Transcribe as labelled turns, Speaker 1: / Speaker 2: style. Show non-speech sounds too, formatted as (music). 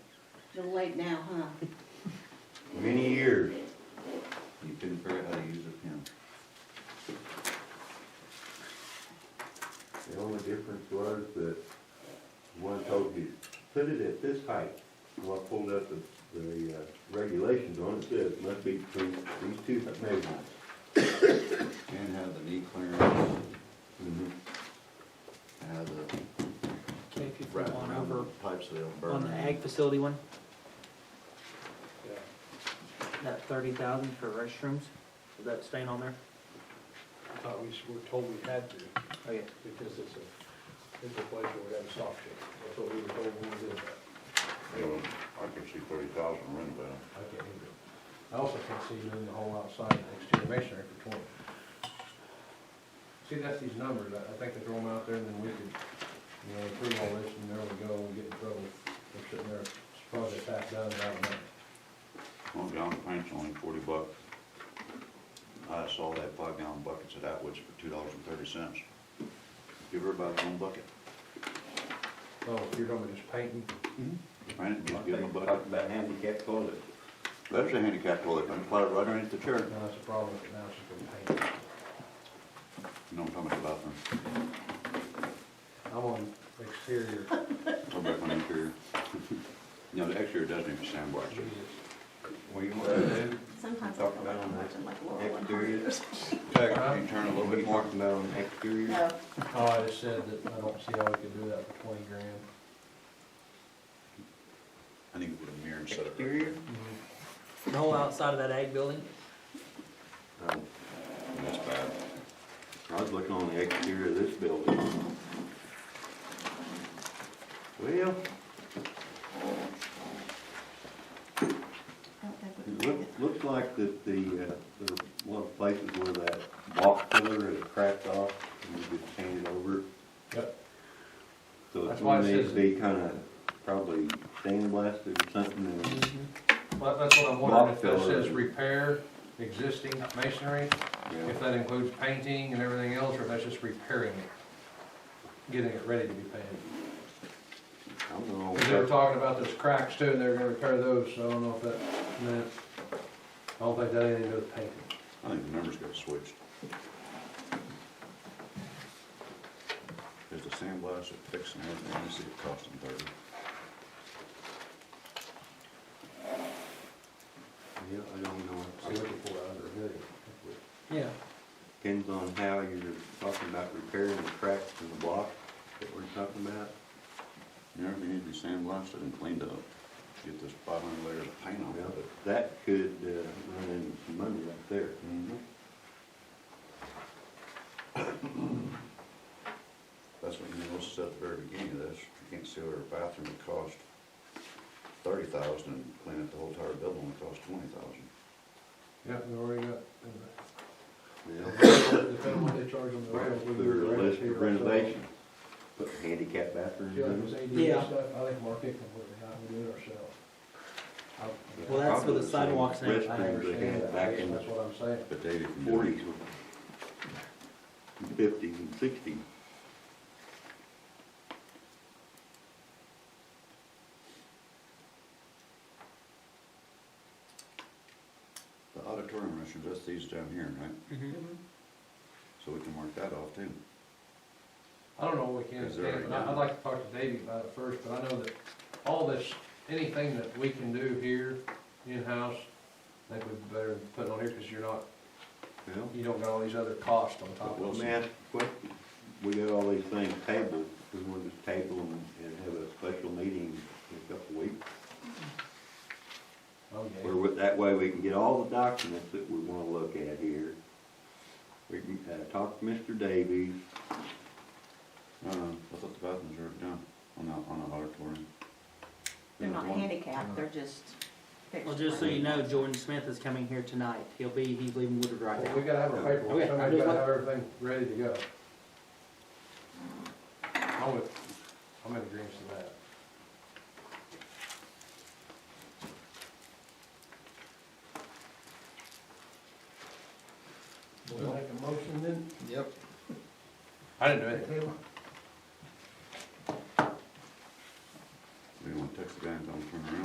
Speaker 1: Still late now, huh?
Speaker 2: many years. You couldn't figure out how to use a pen. The only difference was that one told you, put it at this height. Well, I pulled up the, the uh, regulations on it, said it must be between these two measurements.
Speaker 3: And have the knee clearance,
Speaker 2: Mhm.
Speaker 3: have the
Speaker 4: Okay, if you
Speaker 3: wrap
Speaker 4: flip on
Speaker 3: around
Speaker 4: over
Speaker 3: the pipes so they don't burn.
Speaker 4: on the ag facility one, that thirty thousand for restrooms, is that staying on there?
Speaker 5: I thought we s- were told we had to,
Speaker 4: Oh, yeah.
Speaker 5: because it's a, it's a place where we have a stock check. That's what we were told when we did that.
Speaker 6: You know, I can see thirty thousand rent about.
Speaker 5: I can't hear it. I also can't see doing the whole outside exterior masonry for twenty. See, that's these numbers, I, I think they throw them out there, and then we could, you know, approve all this, and there we go, we get in trouble. We're sitting there, it's probably half done, without a money.
Speaker 6: One gallon paint's only forty bucks. I saw that five gallon buckets at Atwoods for two dollars and thirty cents. Give everybody one bucket.
Speaker 5: Oh, if you're gonna be just painting,
Speaker 6: Paint it, just give them a bucket.
Speaker 2: Talked about handicap toilet.
Speaker 6: That is a handicap toilet, I'm glad right underneath the chair.
Speaker 5: now that's a problem, now it's just gonna paint.
Speaker 6: You know, I'm talking about them.
Speaker 5: I'm on exterior,
Speaker 6: Go back on the interior. (laughs) You know, the exterior doesn't even sandblast it.
Speaker 5: Jesus.
Speaker 2: Well, you want to do?
Speaker 1: Sometimes I
Speaker 2: Talk
Speaker 1: feel
Speaker 2: about
Speaker 1: like I'm
Speaker 2: them,
Speaker 1: watching like Laurel and Hardy
Speaker 2: Exterior.
Speaker 1: or something.
Speaker 6: Tech, can you turn a little bit more?
Speaker 2: Talking about on exterior.
Speaker 1: No,
Speaker 5: Oh, I just said that I don't see how we could do that for twenty grand.
Speaker 6: I need to put a mirror and set it. right
Speaker 2: Exterior?
Speaker 4: The whole outside of that ag building,
Speaker 2: Um,
Speaker 6: there. That's bad.
Speaker 2: I was looking on the exterior of this building. Well,
Speaker 1: I don't think we can
Speaker 2: it
Speaker 1: do
Speaker 2: look, looks like that the, uh, there are a lot of places where that block pillar is cracked off and you just hand it over.
Speaker 5: Yep.
Speaker 2: So it's
Speaker 5: That's why
Speaker 2: one
Speaker 5: it
Speaker 2: of these
Speaker 5: says-
Speaker 2: be kinda probably sandblasted or something and
Speaker 5: Mm-hmm. Well, that's what I'm wondering, if that
Speaker 2: Block filler.
Speaker 5: says repair existing masonry,
Speaker 2: Yeah.
Speaker 5: if that includes painting and everything else, or if that's just repairing it, getting it ready to be painted.
Speaker 2: I don't know.
Speaker 5: Because they were talking about those cracks too, and they were gonna repair those, so I don't know if that meant, I don't think that had anything to do with painting.
Speaker 6: I think the numbers got switched. There's the sandblast, it fixed and everything, I see it costing thirty.
Speaker 2: Yeah, I don't know.
Speaker 5: See what you pour out of it.
Speaker 4: yeah,
Speaker 2: Depends on how you're talking about repairing the cracks in the block that we're talking about.
Speaker 6: You know, if you need to be sandblasted and cleaned up, get this five hundred layer of paint off
Speaker 2: Yeah,
Speaker 6: of it.
Speaker 2: but that could uh, run into some money right there. Mm-hmm.
Speaker 6: That's what you noticed at the very beginning of this, you can't see where a bathroom would cost thirty thousand and clean up the whole entire building would cost twenty thousand.
Speaker 5: Yeah, we already got,
Speaker 2: Yeah.
Speaker 5: depending on what they charge on the rail. we can
Speaker 2: There's a list
Speaker 5: renovate it
Speaker 2: of
Speaker 5: ourselves.
Speaker 2: renovations, put handicap bathrooms
Speaker 5: See, like this
Speaker 2: in.
Speaker 5: ADU
Speaker 4: Yeah.
Speaker 5: stuff, I think Mark Hickman would have gotten to do it ourselves. I-
Speaker 4: Well, that's for the sidewalks and
Speaker 2: Restrooms
Speaker 4: everything.
Speaker 5: I
Speaker 2: they
Speaker 5: understand
Speaker 2: had
Speaker 5: that,
Speaker 2: back
Speaker 5: I guess
Speaker 2: in the
Speaker 5: that's what I'm saying.
Speaker 6: But Dave, if you
Speaker 2: forties,
Speaker 6: do,
Speaker 2: fifties and sixties.
Speaker 6: the auditorium restrooms, that's these down here, right?
Speaker 4: mhm.
Speaker 1: Mhm.
Speaker 6: So we can mark that off too.
Speaker 5: I don't know what we can,
Speaker 6: Is there-
Speaker 5: and I- I'd like to talk to Davey about it first, but I know that all this, anything that we can do here in-house, I think we'd better put on here, because you're not,
Speaker 2: Well,
Speaker 5: you don't got all these other costs on top
Speaker 2: let
Speaker 5: of
Speaker 2: me
Speaker 5: it.
Speaker 2: ask a question. We got all these things tabled, we want to table them and have a special meeting in a couple of weeks. Where,
Speaker 5: Okay,
Speaker 2: we- that way we can get all the documents that we wanna look at here. We can, uh, talk to Mr. Davies,
Speaker 6: No, no, Uh, I thought the bathrooms were down on the, on the auditorium.
Speaker 1: They're not
Speaker 6: One-
Speaker 1: handicapped, they're just fixed.
Speaker 4: Well, just so you know, Jordan Smith is coming here tonight, he'll be, he's leaving Woodard right
Speaker 5: well, we
Speaker 4: now.
Speaker 5: gotta have our paperwork,
Speaker 4: Okay,
Speaker 5: somebody's
Speaker 4: I'll do
Speaker 5: gotta
Speaker 4: it.
Speaker 5: have everything ready to go. I'm with, I'm in agreement with that. Make a motion then?
Speaker 3: Yep.
Speaker 5: I didn't do anything.
Speaker 6: We don't want to text the guy and tell him to turn around.